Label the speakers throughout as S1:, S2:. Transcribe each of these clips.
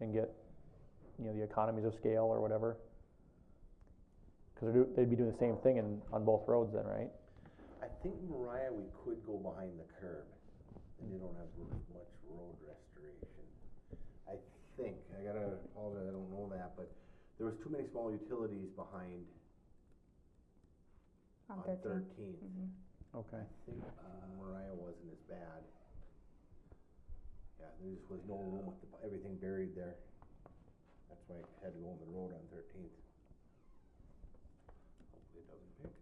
S1: and get, you know, the economies of scale or whatever? Cause they're do, they'd be doing the same thing in, on both roads then, right?
S2: I think Mariah, we could go behind the curb, and you don't have r- much road restoration. I think, I gotta apologize, I don't know that, but there was too many small utilities behind on
S3: on thirteen.
S2: Thirteenth.
S3: Mm-hmm.
S1: Okay.
S2: I think Uh, Mariah wasn't as bad. Yeah, there just was no room with the, everything buried there. That's why I had to go on the road on Thirteenth. Hopefully it doesn't pick.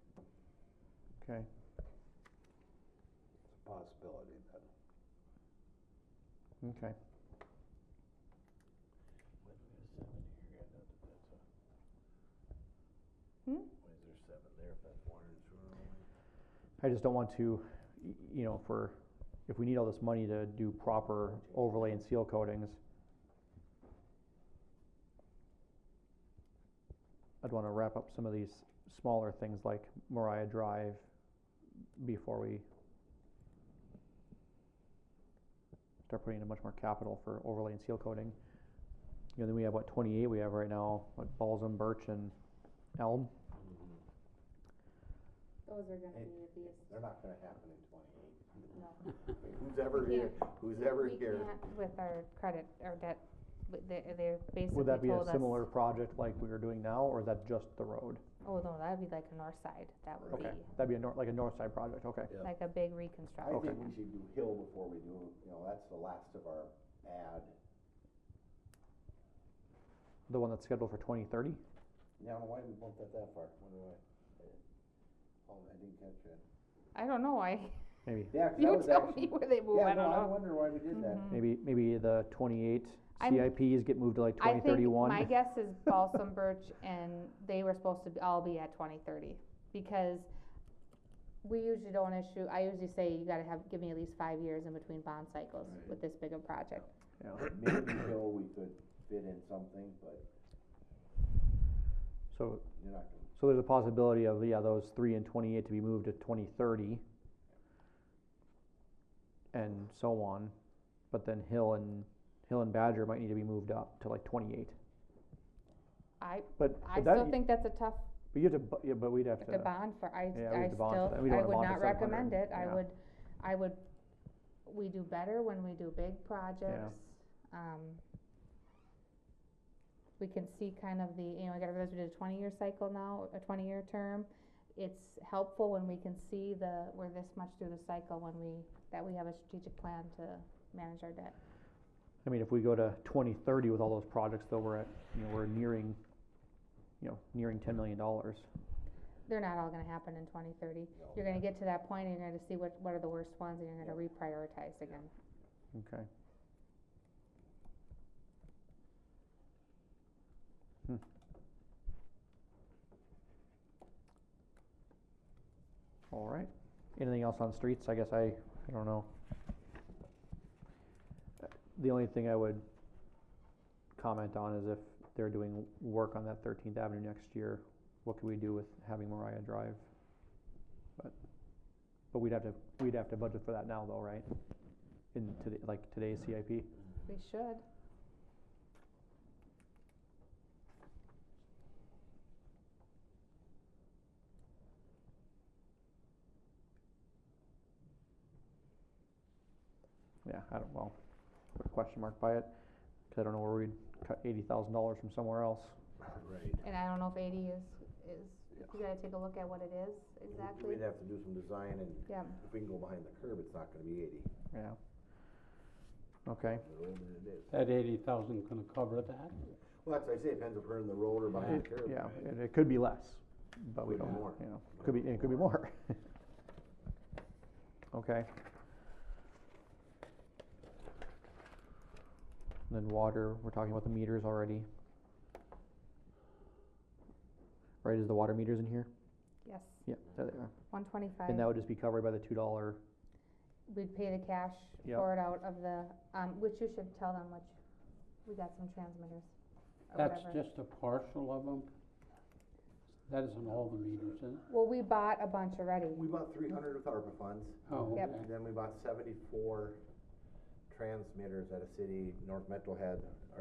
S1: Okay,
S2: It's a possibility that.
S1: okay.
S2: Why do we have seven here? I doubt that that's a.
S3: Hmm?
S2: Why is there seven there if that's water and sewer only?
S1: I just don't want to, y- you know, for, if we need all this money to do proper overlay and seal coatings. I'd wanna wrap up some of these smaller things like Mariah Drive before we start putting in much more capital for overlay and seal coating. You know, then we have what, twenty-eight we have right now, what, Balsam, Birch and Elm?
S2: Mm-hmm.
S3: Those are gonna
S2: Hey,
S3: need to be, a s-
S2: They're not gonna happen in twenty-eight.
S3: no.
S2: Who's ever
S3: We
S2: here,
S3: can't-
S2: who's ever
S3: We
S2: here?
S3: can't with our credit, our debt, but they, they're basically
S1: Would that be a
S3: told us-
S1: similar project like we were doing now, or is that just the road?
S3: Oh, no, that'd be like a north side, that would
S1: Okay,
S3: be
S1: that'd be a nor- like a north side project, okay.
S2: Yeah.
S3: like a big
S2: I
S3: reconstruction.
S2: think we should do Hill before we do, you know, that's the last of our bad.
S1: The one that's scheduled for twenty thirty?
S2: Now, why did we bump that that far? Wonder why? Oh, I didn't catch that.
S3: I don't know, I,
S1: Maybe,
S2: Yeah, 'cause that
S3: you
S2: was
S3: tell me
S2: actually.
S3: where they move,
S2: Yeah,
S3: I don't
S2: no, I
S3: know.
S2: wonder why we did that.
S1: maybe, maybe the twenty-eight
S3: Hmm. I'm-
S1: CIPs get moved to like
S3: I
S1: twenty
S3: think
S1: thirty-one?
S3: My guess is Balsam Birch and they were supposed to be- all be at twenty thirty, because we usually don't issue, I usually say you gotta have, give me at least five years in between bond cycles with this big a project. Mm-hmm.
S2: Maybe Hill we could fit in something, but
S1: So,
S2: you're not gonna
S1: so there's a possibility of, yeah, those three and twenty-eight to be moved to twenty thirty. And so on, but then Hill and, Hill and Badger might need to be moved up to like twenty-eight,
S3: I,
S1: but.
S3: I
S1: but that-
S3: still think that's a tough
S1: But you have to, bu- yeah, but we'd have
S3: to bond for, I,
S1: Yeah, we
S3: I
S1: have to bond for
S3: still,
S1: that. We don't
S3: I
S1: wanna bond
S3: would not
S1: for 700,
S3: recommend it, I
S1: yeah.
S3: would, I would, we do better when we do big projects. Um, we can see kind of the, you know, I gotta realize we did a twenty-year cycle now, a twenty-year term. It's helpful when we can see the, we're this much through the cycle when we, that we have a strategic plan to manage our debt.
S1: I mean, if we go to twenty thirty with all those projects, though, we're at, you know, we're nearing, you know, nearing ten million dollars.
S3: They're not all gonna happen in twenty thirty.
S2: No.
S3: You're gonna get to that point and you're gonna see what, what are the worst ones and you're gonna reprioritize again.
S1: Okay. Hmm. All right. Anything else on streets? I guess I, I don't know. Uh, The only thing I would comment on is if they're doing work on that Thirteenth Avenue next year, what could we do with having Mariah Drive? But, but we'd have to, we'd have to budget for that now though, right? in today, like today's CIP.
S3: We should.
S1: Yeah, I don't, well, put a question mark by it, cause I don't know where we'd cut eighty thousand dollars from somewhere else.
S2: Right.
S3: And I don't know if eighty is, is, you gotta take a look at what it is exactly.
S2: We'd have to do some design and
S3: Yeah,
S2: if we can go behind the curb, it's not gonna be eighty.
S1: Yeah. Okay,
S2: The road than it is.
S4: That eighty thousand gonna cover that?
S2: Well, that's what I say, depends if we're in the road or behind the
S1: It-
S2: curb.
S1: yeah, and it could be less, but we
S2: Could be
S1: don't,
S2: more.
S1: you know, could be, it could be more. Okay. And Then water, we're talking about the meters already. Right, is the water meters in here?
S3: yes,
S1: Yeah, there they are.
S3: one twenty-five.
S1: And that would just be covered by the two dollar
S3: We'd pay the cash
S1: Yep.
S3: for it out of the, um, which you should tell them, which, we got some transmitters or
S4: That's
S3: whatever.
S4: just a partial of them? That isn't all the meters, is it?
S3: Well, we bought a bunch already.
S2: We bought three hundred with ARPA funds,
S4: Oh,
S3: Yep.
S4: okay.
S2: and then we bought seventy-four transmitters at a city, North Metro had,